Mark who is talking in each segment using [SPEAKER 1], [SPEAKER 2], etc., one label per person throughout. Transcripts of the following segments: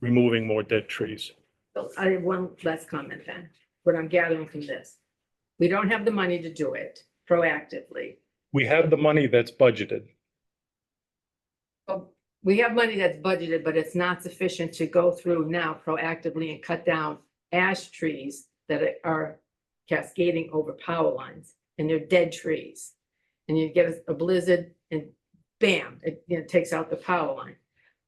[SPEAKER 1] removing more dead trees.
[SPEAKER 2] So I have one last comment then, what I'm gathering from this. We don't have the money to do it proactively.
[SPEAKER 1] We have the money that's budgeted.
[SPEAKER 2] But We have money that's budgeted, but it's not sufficient to go through now proactively and cut down ash trees that are cascading over power lines and they're dead trees. And you get a blizzard and bam, it, you know, takes out the power line.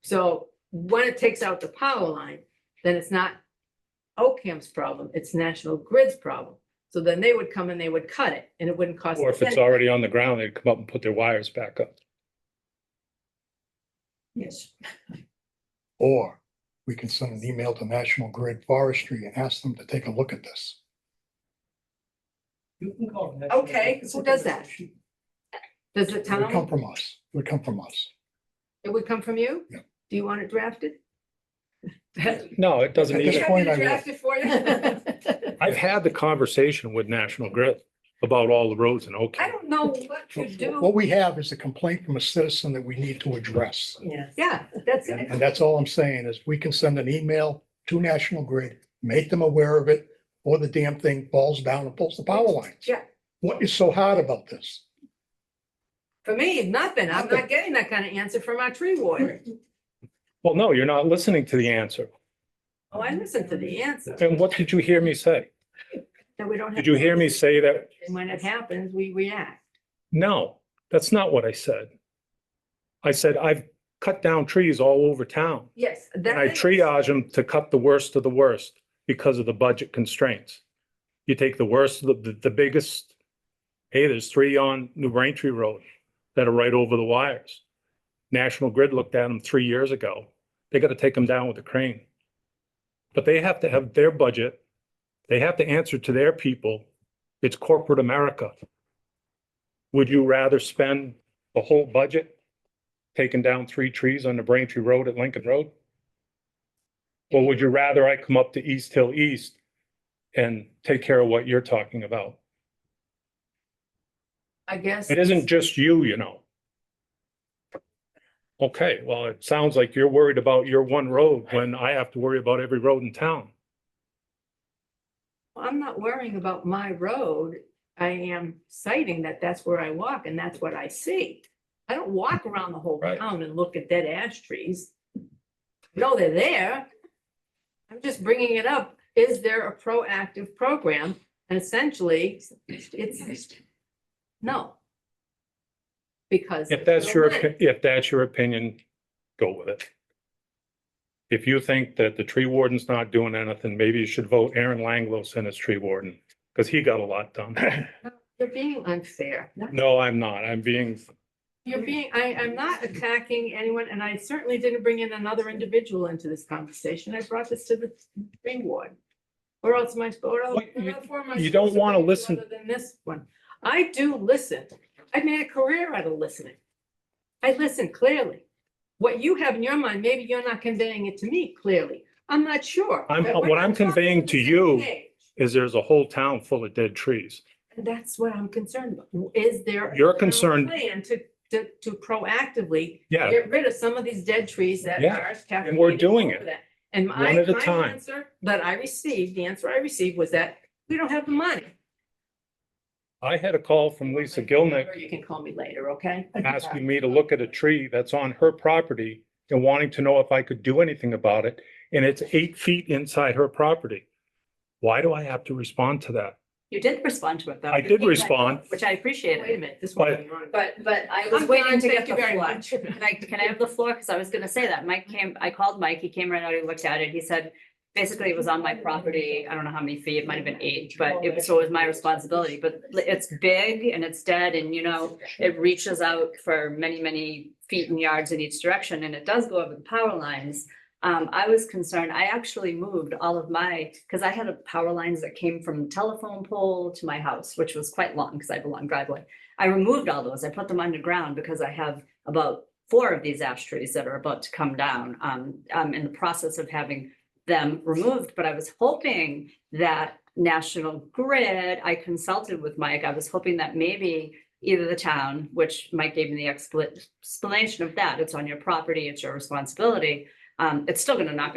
[SPEAKER 2] So when it takes out the power line, then it's not Oakham's problem, it's National Grid's problem. So then they would come and they would cut it and it wouldn't cost.
[SPEAKER 1] Or if it's
[SPEAKER 2] them.
[SPEAKER 1] already on the ground, they'd come up and put their wires back up.
[SPEAKER 2] Yes.
[SPEAKER 3] Or we can send an email to National Grid Forestry and ask them to take a look at this.
[SPEAKER 4] You can call. it.
[SPEAKER 2] Okay, who does that? Does the
[SPEAKER 3] It would come
[SPEAKER 2] town,
[SPEAKER 3] from us. It would come from us.
[SPEAKER 2] it would come from you?
[SPEAKER 3] Yeah.
[SPEAKER 2] Do you want it drafted?
[SPEAKER 1] No, it doesn't
[SPEAKER 3] At this
[SPEAKER 1] need, it.
[SPEAKER 3] point, I will.
[SPEAKER 1] I've had the conversation with National Grid about all the roads in
[SPEAKER 2] I
[SPEAKER 1] Oakland.
[SPEAKER 2] don't know what to do.
[SPEAKER 3] What we have is a complaint from a citizen that we need to address.
[SPEAKER 5] Yes.
[SPEAKER 2] Yeah, that's
[SPEAKER 3] And
[SPEAKER 2] it.
[SPEAKER 3] and that's all I'm saying is we can send an email to National Grid, make them aware of it, or the damn thing falls down and pulls the power lines.
[SPEAKER 2] Yeah,
[SPEAKER 3] What is so hard about this?
[SPEAKER 2] for me, nothing. I'm not getting that kind of answer from our tree warden.
[SPEAKER 1] Well, no, you're not listening to the answer.
[SPEAKER 2] Oh, I listened to the answer.
[SPEAKER 1] And what did you hear me say?
[SPEAKER 2] That we don't have.
[SPEAKER 1] Did you hear me say that?
[SPEAKER 2] And when it happens, we react.
[SPEAKER 1] No, that's not what I said. I said, I've cut down trees all over town.
[SPEAKER 2] Yes. that
[SPEAKER 1] And I
[SPEAKER 2] is-
[SPEAKER 1] triage them to cut the worst of the worst because of the budget constraints. You take the worst, of the, the biggest, hey, there's three on New Braintree Road that are right over the wires. National Grid looked at them three years ago. They got to take them down with a crane. But they have to have their budget. They have to answer to their people. It's corporate America. Would you rather spend the whole budget taking down three trees on the Braintree Road at Lincoln Road? Or would you rather I come up to East Hill East and take care of what you're talking about?
[SPEAKER 2] I guess.
[SPEAKER 1] It isn't just you, you know. Okay, well, it sounds like you're worried about your one road when I have to worry about every road in town.
[SPEAKER 2] I'm not worrying about my road. I am citing that that's where I walk and that's what I see. I don't walk around the whole
[SPEAKER 1] Right.
[SPEAKER 2] town and look at dead ash trees. No, they're there. I'm just bringing it up. Is there a proactive program? And essentially, it's, no. Because.
[SPEAKER 1] If that's your, opi- if that's your opinion, go with it. If you think that the tree warden's not doing anything, maybe you should vote Aaron Langlos in as tree warden, because he got a lot done.
[SPEAKER 2] You're being unfair.
[SPEAKER 1] No, I'm not. I'm being
[SPEAKER 2] You're being, I, I'm not attacking anyone, and I certainly didn't bring in another individual into this conversation. I brought this to the tree ward. Or else my, or else.
[SPEAKER 1] Well, you-
[SPEAKER 2] what am I
[SPEAKER 1] you don't
[SPEAKER 2] supposed to
[SPEAKER 1] wanna
[SPEAKER 2] do
[SPEAKER 1] listen-
[SPEAKER 2] Other than this one. I do listen. I made a career out of listening. I listen clearly. What you have in your mind, maybe you're not conveying it to me clearly. I'm not sure.
[SPEAKER 1] I'm-
[SPEAKER 2] but we're
[SPEAKER 1] what I'm
[SPEAKER 2] not talking
[SPEAKER 1] conveying
[SPEAKER 2] on the
[SPEAKER 1] to
[SPEAKER 2] same
[SPEAKER 1] you-
[SPEAKER 2] page.
[SPEAKER 1] is there's a whole town full of dead trees.
[SPEAKER 2] And that's what I'm concerned about. Is there? a
[SPEAKER 1] You're
[SPEAKER 2] town
[SPEAKER 1] concerned-
[SPEAKER 2] Plan to, to, to proactively
[SPEAKER 1] Yeah,
[SPEAKER 2] get rid of some of these dead trees that
[SPEAKER 1] Yeah,
[SPEAKER 2] are.
[SPEAKER 1] and we're doing it,
[SPEAKER 2] And my,
[SPEAKER 1] one at a
[SPEAKER 2] my
[SPEAKER 1] time.
[SPEAKER 2] answer that I received, the answer I received was that we don't have the money.
[SPEAKER 1] I had a call from Lisa
[SPEAKER 2] Or
[SPEAKER 1] Gilnick
[SPEAKER 2] You can call me later, okay?
[SPEAKER 1] asking me to look at a tree that's on her property and wanting to know if I could do anything about it, and it's eight feet inside her property. Why do I have to respond to that?
[SPEAKER 5] You did respond to it, though.
[SPEAKER 1] I did respond.
[SPEAKER 5] Which I
[SPEAKER 2] Wait a
[SPEAKER 5] appreciated,
[SPEAKER 2] minute, this
[SPEAKER 1] But-
[SPEAKER 2] one.
[SPEAKER 5] but, but I
[SPEAKER 2] I'm
[SPEAKER 5] was
[SPEAKER 2] done,
[SPEAKER 5] waiting to
[SPEAKER 2] thank
[SPEAKER 5] get
[SPEAKER 2] you
[SPEAKER 5] the
[SPEAKER 2] very
[SPEAKER 5] floor.
[SPEAKER 2] much.
[SPEAKER 5] Can I, can I have the floor? Because I was gonna say that. Mike came, I called Mike, he came right out, he looked at it, he said, basically it was on my property, I don't know how many feet, it might have been eight, but it was, so it was my responsibility, but it's big and it's dead and, you know, it reaches out for many, many feet and yards in each direction, and it does go over the power lines. Um, I was concerned, I actually moved all of my, because I had a power lines that came from the telephone pole to my house, which was quite long, because I have a long driveway. I removed all those, I put them underground because I have about four of these ash trees that are about to come down. Um, I'm in the process of having them removed, but I was hoping that National Grid, I consulted with Mike, I was hoping that maybe either the town, which Mike gave me the expla- explanation of that, it's on your property, it's your responsibility. Um, it's still gonna knock